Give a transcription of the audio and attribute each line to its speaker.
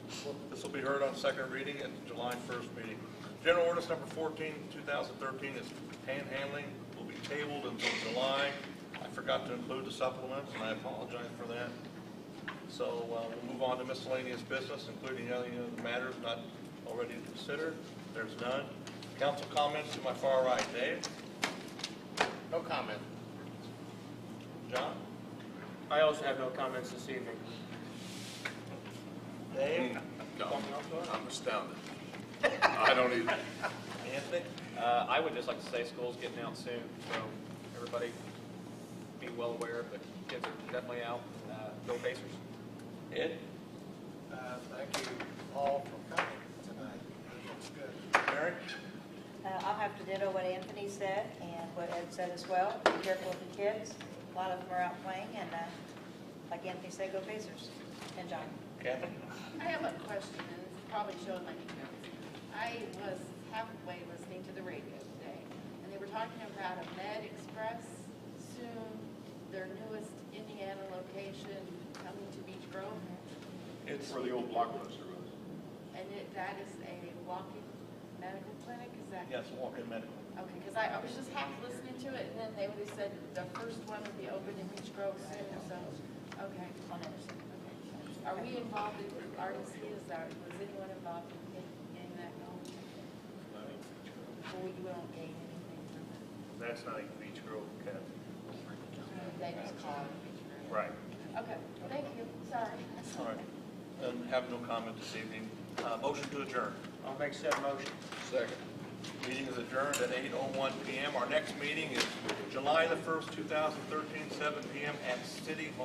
Speaker 1: be heard on second reading at the July 1st meeting. General ordinance number 14, 2013 is panhandling, will be tabled until July. I forgot to include the supplements, and I apologize for that. So uh, we'll move on to miscellaneous business, including any other matters not already considered. There's none. Council comments to my far right. Dave?
Speaker 2: No comment.
Speaker 1: John?
Speaker 3: I also have no comments this evening.
Speaker 1: Dave?
Speaker 2: No,
Speaker 1: Something else, John?
Speaker 2: I'm astounded. I don't even,
Speaker 1: Anthony?
Speaker 4: Uh, I would just like to say school's getting out soon, so everybody be well aware, but kids are definitely out. Uh, Go Pacers.
Speaker 1: Ed?
Speaker 5: Uh, Thank you all for coming tonight. It's good.
Speaker 1: Mary?
Speaker 6: Uh, I'll have to ditto what Anthony said and what Ed said as well. Be careful of the kids. A lot of them are out playing, and uh, like Anthony said, go Pacers. And John.
Speaker 1: Kathy?
Speaker 7: I have a question, and this probably showed my ignorance. I was halfway listening to the radio today, and they were talking about a Med Express soon, their newest Indiana location coming to Beach Grove,
Speaker 1: It's,
Speaker 2: where the old Blockbuster was.
Speaker 7: and it, that is a walking medical clinic, is that?
Speaker 1: yes, walk-in medical.
Speaker 7: Okay, because I, I was just half listening to it, and then they would have said the first one would be open in Beach Grove soon, so, okay. Okay. Are we involved in RDC, is that, was anyone involved in, in- in that knowledge? Well, we won't gain anything from it.
Speaker 8: That's not even Beach Grove, Kathy.
Speaker 7: They just call it Beach Grove.
Speaker 8: Right.
Speaker 7: Okay, thank you, sorry.
Speaker 1: All right. And have no comment this evening. Uh, Motion to adjourn.
Speaker 3: I'll make said motion.
Speaker 2: Second.
Speaker 1: Meeting is adjourned at 8:01 PM. Our next meeting is July the 1st, 2013, 7 PM at City Hall.